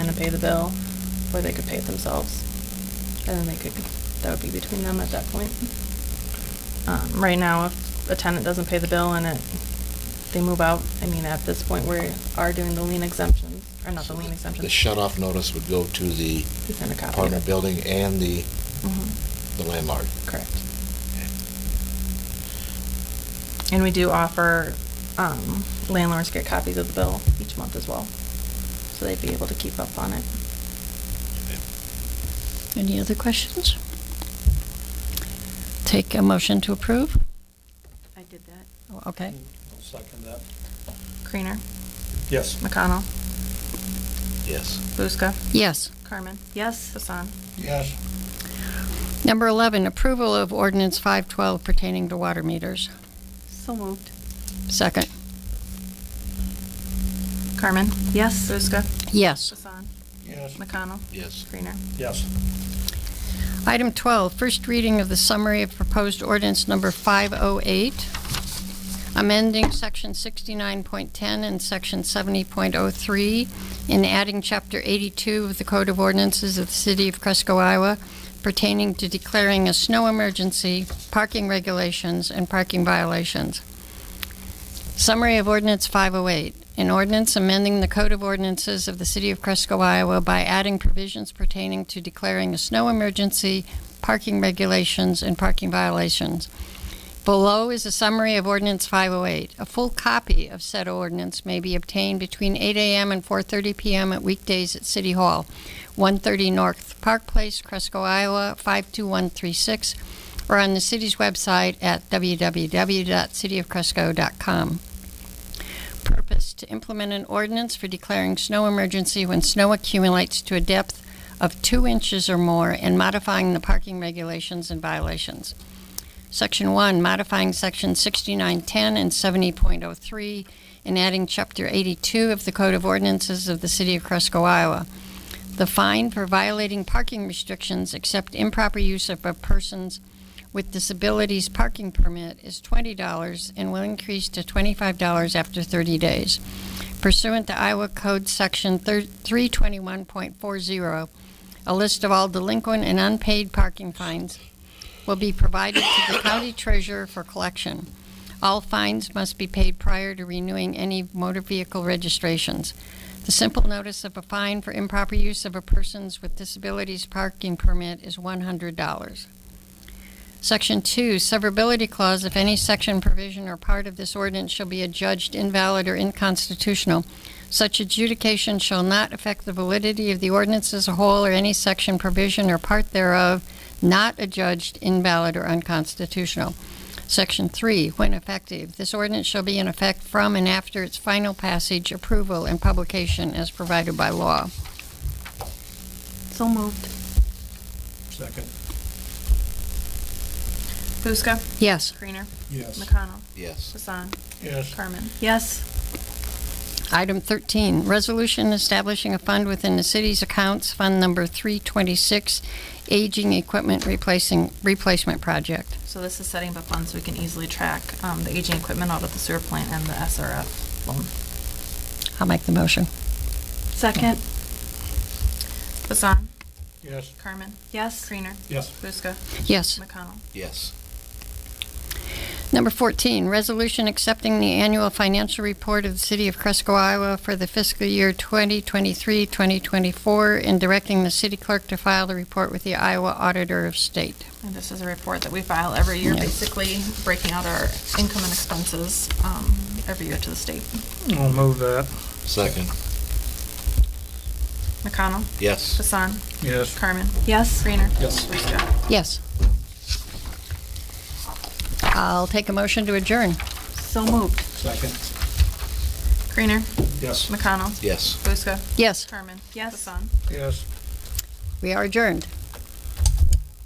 pay the bill, or they could pay it themselves. And then they could, that would be between them at that point. Um, right now, if a tenant doesn't pay the bill and it, they move out, I mean, at this point, we are doing the lien exemptions, or not the lien exemptions. The shut-off notice would go to the He sent a copy. apartment building and the, Mhm, the landlord. Correct. And we do offer um, landlords get copies of the bill each month as well, so they'd be able to keep up on it. Any other questions? Take a motion to approve? I did that. Oh, Okay. I'll second that. Creener, Yes. McConnell, Yes. Buska, Yes. Carmen. Yes. Hassan. Yes. Number 11, approval of ordinance 512 pertaining to water meters. So moved. Second. Carmen. Yes. Buska. Yes. Hassan. Yes. McConnell. Yes. Creener. Yes. Item 12, first reading of the summary of proposed ordinance number 508, amending Section 69.10 and Section 70.03, and adding Chapter 82 of the Code of Ordinances of the City of Cresco, Iowa pertaining to declaring a snow emergency, parking regulations, and parking violations. Summary of Ordinance 508. An ordinance amending the Code of Ordinances of the City of Cresco, Iowa by adding provisions pertaining to declaring a snow emergency, parking regulations, and parking violations. Below is a summary of Ordinance 508. A full copy of said ordinance may be obtained between 8 a.m. and 4:30 p.m. at weekdays at City Hall, 130 North Park Place, Cresco, Iowa, 52136, or on the city's website at www.cityofcresco.com. Purpose: To implement an ordinance for declaring snow emergency when snow accumulates to a depth of two inches or more and modifying the parking regulations and violations. Section 1, modifying Section 6910 and 70.03 and adding Chapter 82 of the Code of Ordinances of the City of Cresco, Iowa. The fine for violating parking restrictions except improper use of a person's with disabilities parking permit is $20 and will increase to $25 after 30 days. Pursuant to Iowa Code Section thir- 321.40, a list of all delinquent and unpaid parking fines will be provided to the county treasurer for collection. All fines must be paid prior to renewing any motor vehicle registrations. The simple notice of a fine for improper use of a person's with disabilities parking permit is $100. Section 2, severability clause, if any section, provision, or part of this ordinance shall be adjudged invalid or inconstitutional, such adjudication shall not affect the validity of the ordinance as a whole or any section, provision, or part thereof not adjudged invalid or unconstitutional. Section 3, when effective, this ordinance shall be in effect from and after its final passage, approval, and publication as provided by law. So moved. Second. Buska. Yes. Creener. Yes. McConnell. Yes. Hassan. Yes. Carmen. Yes. Item 13, resolution establishing a fund within the city's accounts, Fund Number 326, Aging Equipment Replacing, Replacement Project. So this is setting up funds so we can easily track um, the aging equipment out of the sewer plant and the SRF loan. I'll make the motion. Second. Hassan. Yes. Carmen. Yes. Creener. Yes. Buska. Yes. McConnell. Yes. Number 14, resolution accepting the annual financial report of the City of Cresco, Iowa for the fiscal year 2023-2024 and directing the city clerk to file the report with the Iowa Auditor of State. And this is a report that we file every year, Yeah. basically breaking out our income and expenses um, every year to the state. I'll move that. Second. McConnell, Yes. Hassan, Yes. Carmen, Yes. Greener. Yes. Buska. Yes. I'll take a motion to adjourn. So moved. Second. Greener, Yes. McConnell, Yes. Buska, Yes, Carmen. Yes. Hassan. Yes. we are adjourned.